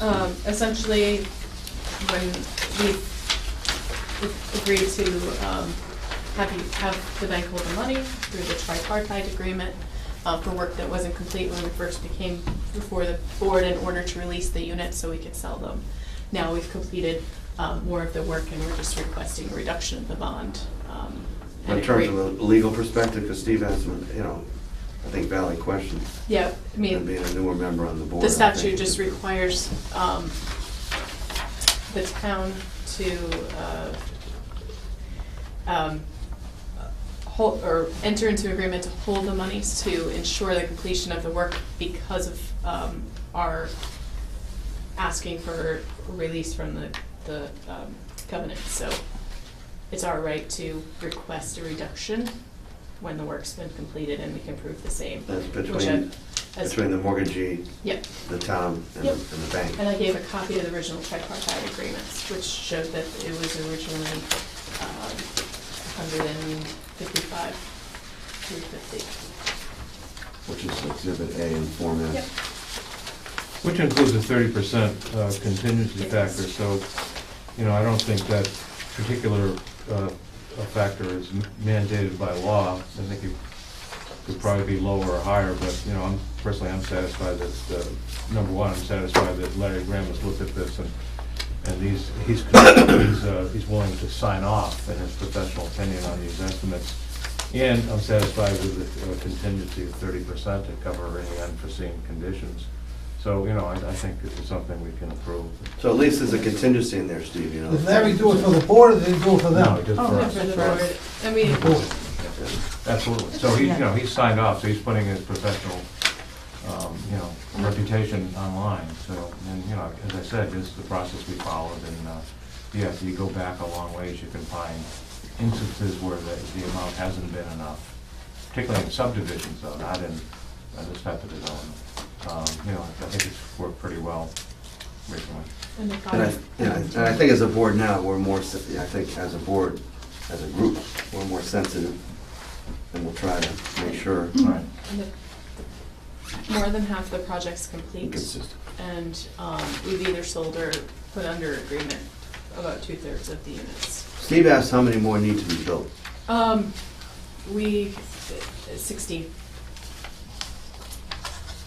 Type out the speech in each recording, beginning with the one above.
Um, essentially, when we agree to, um, have you, have the bank hold the money through the tripartite agreement, uh, for work that wasn't complete when we first became before the board in order to release the units so we could sell them. Now we've completed, um, more of the work and we're just requesting a reduction of the bond, um. and In terms of agree- a legal perspective, because Steve has some, you know, I think valid questions. Yeah, I mean. And being a newer member on the board. The I statute think- just requires um, the town to uh, um, hold, or enter into agreement to hold the monies to ensure the completion of the work because of um, our asking for release from the, the um, covenant. So it's our right to request a reduction when the work's been completed and we can prove the same. That's which I- between, as- between the mortgagee, Yep. the town, and the Yep. and the bank. And I gave a copy of the original tripartite agreements, which showed that it was originally um, 155, 350. Which is Exhibit A in Form Yep. S. Which includes a thirty percent uh, contingency It factor, does. so, you know, I don't think that particular uh, uh, factor is mandated by law. I think it could probably be lower or higher, but, you know, I'm, personally, I'm satisfied that, uh, number one, I'm satisfied that Larry Graham has looked at this and, and he's, he's, he's, uh, he's willing to sign off in his professional opinion on these estimates. And I'm satisfied with the uh, contingency of thirty percent to cover any unforeseen conditions. So, you know, I, I think this is something we can approve. So at least there's a contingency in there, Steve, you know. Did Larry do it for the board or did he do it No, for them? just Oh, for not for the us. board. I mean, Board. Absolutely. So he, you know, he's signed off, so he's putting his professional, um, you know, reputation online. So, and, you know, as I said, this is the process we followed and, uh, yes, you go back a long ways, you can find instances where the, the amount hasn't been enough, particularly in subdivisions though, not in uh, this type of development. Um, You know, I think it's worked pretty well recently. and the And I, bottom- yeah, and I think as a board now, we're more, se- yeah, I think as a board, as a group, we're more sensitive, and we'll try to make sure All right. and the- More than half the project's it's complete, consistent. and um, we've either sold or put under agreement about two-thirds of the units. Steve asked how many more need to be built. Um, we, uh, sixteen.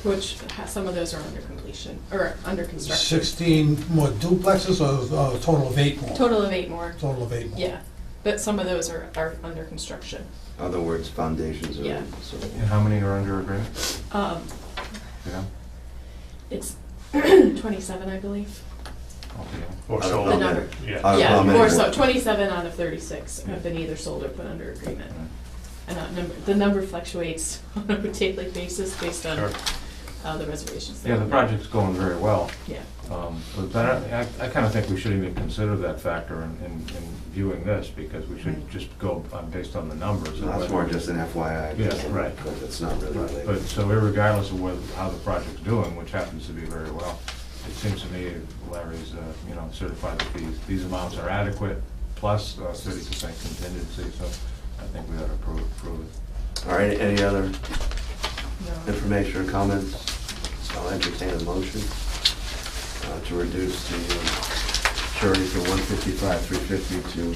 Which, ha- some of those are under completion, or under construction. Sixteen more duplexes or or a total of eight more? Total of eight more, Total of eight more? yeah, but some of those are, are under construction. Other words, foundations Yeah. are, so. And how many are under agreement, Um, you know, it's twenty-seven, I believe, altogether? Uh, Or Out of The so, number. comment. yeah. Out of Yeah, comment. or so, twenty-seven out of thirty-six have been either sold or put under agreement. And that number, the number fluctuates on a daily basis based on, Sure. uh, the reservations. that Yeah, the we make. project's going very well. Yeah. Um, But then I, I kind of think we should even consider that factor in, in in viewing this, because we should Right. just go on- based on the numbers. So and That's whether- more just an FYI. Yeah, just- right. But it's not really Right, But, related. so irregardless of whether, how the project's doing, which happens to be very well, it seems to me Larry's, uh, you know, certified that these, these amounts are adequate, plus uh, thirty percent contingency, so I think we ought to approve, approve it. All right, any other No. information or comments? I'll entertain a motion uh, to reduce the uh, surety from one fifty-five, three fifty to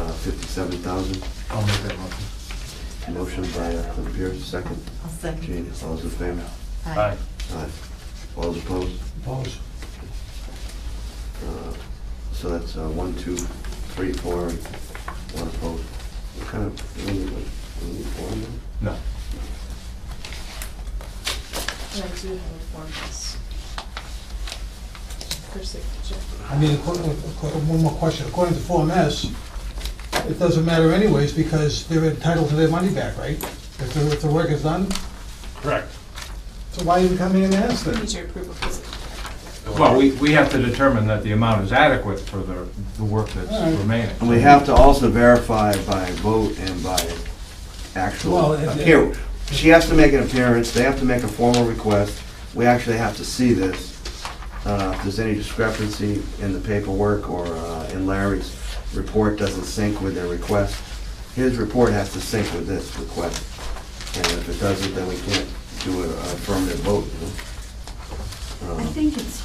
uh, fifty-seven thousand. I'll make that motion. Motion by uh, Pierce, second. I'll second. Gene, all those in favor? Aye. Aye. All those opposed? Opposed? Uh, So that's uh, one, two, three, four, and one opposed. What kind of, we need, like, we need four of them? No. And I do have a form that's for signature. I mean, acco- acco- one more question. According to Form S, it doesn't matter anyways because they're entitled to their money back, right? If the, if the work is done, Correct. so why even come in and ask I them? Need your approval, because it- Well, we, we have to determine that the amount is adequate for the, the work All right. that's remaining. And we have to also verify by vote and by actual Well, it- appear. She has to make an appearance, they have to make a formal request, we actually have to see this. Uh, If there's any discrepancy in the paperwork or uh, in Larry's report doesn't sync with their request, his report has to sync with this request. And if it doesn't, then we can't do an affirmative vote. you know? I Um, think it's